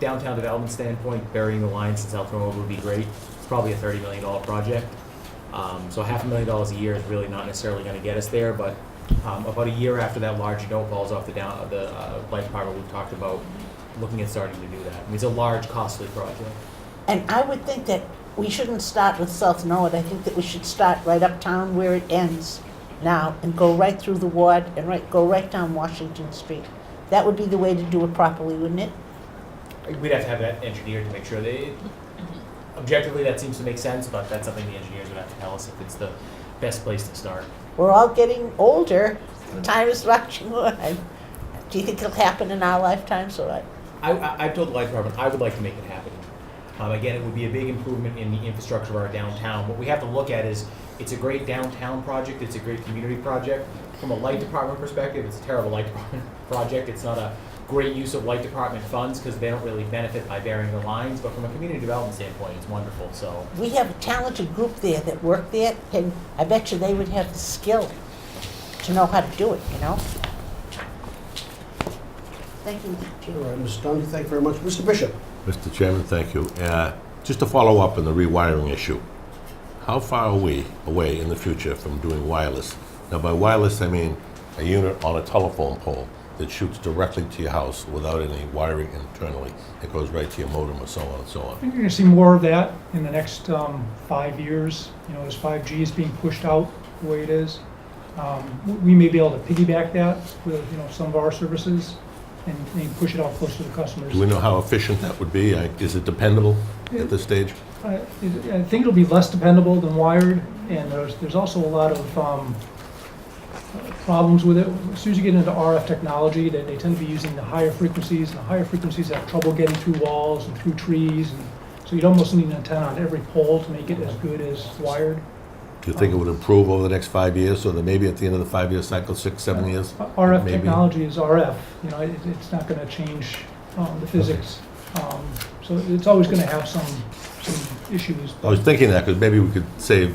downtown development standpoint, burying the line since Elk Grove would be great. It's probably a thirty million dollar project. Um, so half a million dollars a year is really not necessarily gonna get us there, but, um, about a year after that large note falls off the down, the, uh, light department, we've talked about looking at starting to do that. I mean, it's a large costly project. And I would think that we shouldn't start with South Norwood. I think that we should start right uptown where it ends now and go right through the ward and right, go right down Washington Street. That would be the way to do it properly, wouldn't it? We'd have to have that engineered to make sure that, it- objectively, that seems to make sense, but that's something the engineers would have to tell us if it's the best place to start. We're all getting older. Time is rushing on. Do you think it'll happen in our lifetimes or what? I, I, I've told the light department, I would like to make it happen. Um, again, it would be a big improvement in the infrastructure of our downtown. What we have to look at is, it's a great downtown project, it's a great community project. From a light department perspective, it's a terrible light department project, it's not a great use of light department funds, because they don't really benefit by burying the lines, but from a community development standpoint, it's wonderful, so. We have a talented group there that work there, and I bet you they would have the skill to know how to do it, you know? Thank you, All Jim. right, Mr. Dundy, thank you very much. Mr. Bishop? Mr. Chairman, thank you. Uh, Just to follow up on the rewiring issue, how far are we away in the future from doing wireless? Now, by wireless, I mean a unit on a telephone pole that shoots directly to your house without any wiring internally. It goes right to your modem or so on and so I on. think you're gonna see more of that in the next um, five years, you know, as 5G is being pushed out the way it is. Um, w- We may be able to piggyback that with, you know, some of our services and and push it out closer to the customers. Do we know how efficient that would be? I- Is it dependable at this stage? I Uh, I think it'll be less dependable than wired, and there's, there's also a lot of um, problems with it. As soon as you get into RF technology, they, they tend to be using the higher frequencies, and the higher frequencies have trouble getting through walls and through trees, and so you'd almost need an antenna on every pole to make it as good as wired. Do you think it would improve over the next five years, so that maybe at the end of the five-year cycle, six, seven years? RF maybe? Uh, technology is RF, you know, it, it's not gonna change um, the physics. Um, So it's always gonna have some, some issues. I was thinking that, because maybe we could save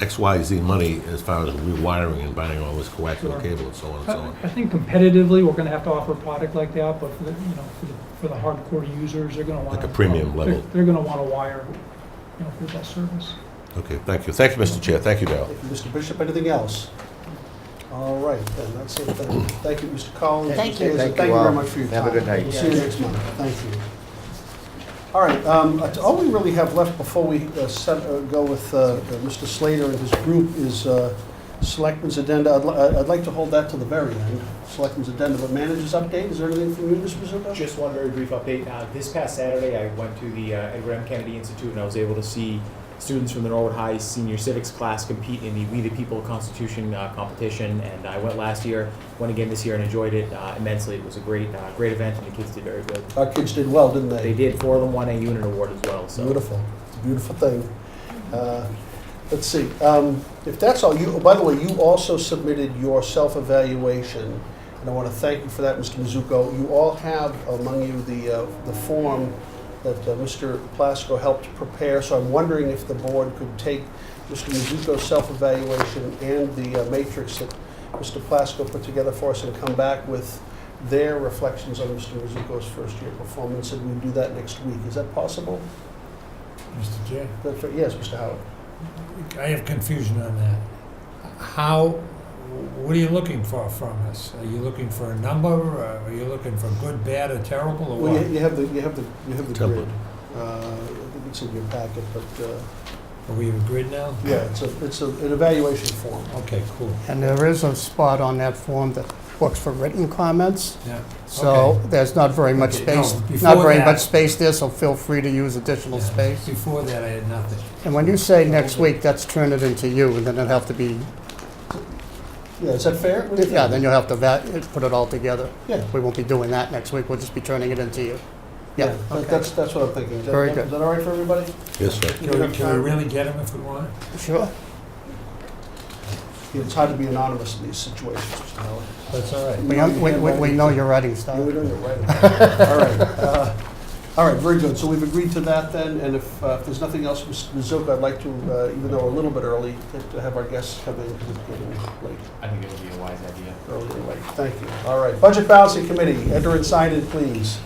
X, Y, Z money as far as rewiring and buying all this coaxial Sure. cable and so on and so I on. I think competitively, we're gonna have to offer a product like that, but for the, you know, for the, for the hardcore users, they're gonna want. Like a premium level. They're gonna want to wire, you know, for that service. Okay, thank you. Thank you, Mr. Chair. Thank you, Darrell. Thank you, Mr. Bishop, anything else? All right, then, that's it. then. Thank you, Mr. Collins. Thank Mr. you. Aiza, Thank you Thank you all. very much for your time. Have a good night. We'll see you next month. Thank you. All right, um, that's all we really have left before we uh, set- uh, go with uh, uh, Mr. Slater and his group is uh, Selectmen's Addenda. I'd li- uh, I'd like to hold that to the very end, Selectmen's Addenda, but managers update, is there anything from you, Mr. Bishop? Just one very brief update. Uh, this past Saturday, I went to the uh, Edward M. Kennedy Institute and I was able to see students from the Norwood High senior civics class compete in the We the People Constitution uh, competition. And I went last year, went again this year, and enjoyed it uh, immensely. It was a great, uh, great event, and the kids did very good. Our kids did well, didn't They did. Four of them won a unit award as well. So Beautiful, it's a beautiful thing. Uh, Let's see, um, if that's all, you, by the way, you also submitted your self-evaluation, and I want to thank you for that, Mr. Mizuko. You all have among you the, uh, the form that uh, Mr. Plasko helped prepare, so I'm wondering if the board could take Mr. Mizuko's self-evaluation and the uh, matrix that Mr. Plasko put together for us and come back with their reflections on Mr. Mizuko's first-year performance, and we do that next week. Is that possible? Mr. Chair, That's right, yes, Mr. Howard. I have confusion on that. How, what are you looking for from us? Are you looking for a number, or are you looking for good, bad, or terrible, or Well, you- what? you have the, you have the, you have the grid. Template. Uh, I think it's in your packet, but, uh, Are we agreed now? yeah, it's a, it's a- an evaluation form. Okay, cool. And there is a spot on that form that looks for written comments, Yeah. so Okay. there's not very much Okay, no, space, not before very that- much space there, so feel free to use additional Yeah, space. Before that, I had nothing. And when you say next week, that's turn it into you, and then it'll have to be, Yeah, is that fair? What do you yeah, then think? you'll have to va- put it all together. Yeah. We won't be doing that next week, we'll just be turning it into you. Yeah, that- okay, That's, that's what I'm thinking. Is that- Very good. Is that all right for everybody? Yes, sir. You Can have we- can time? we really get them if we want? sure. It's hard to be anonymous in these situations, Mr. Howard. That's all right. We, we, we- we know your writing style. You were doing it right. All right. uh, All right, very good. So we've agreed to that then, and if, uh, if there's nothing else, Mr. Mizuko, I'd like to, uh, even though we're a little bit early, to- to have our guests come in, because it's getting late. I think it would be a wise idea. earlier, right, thank you. All right, Budget Balancing Committee, enter and sign in, please.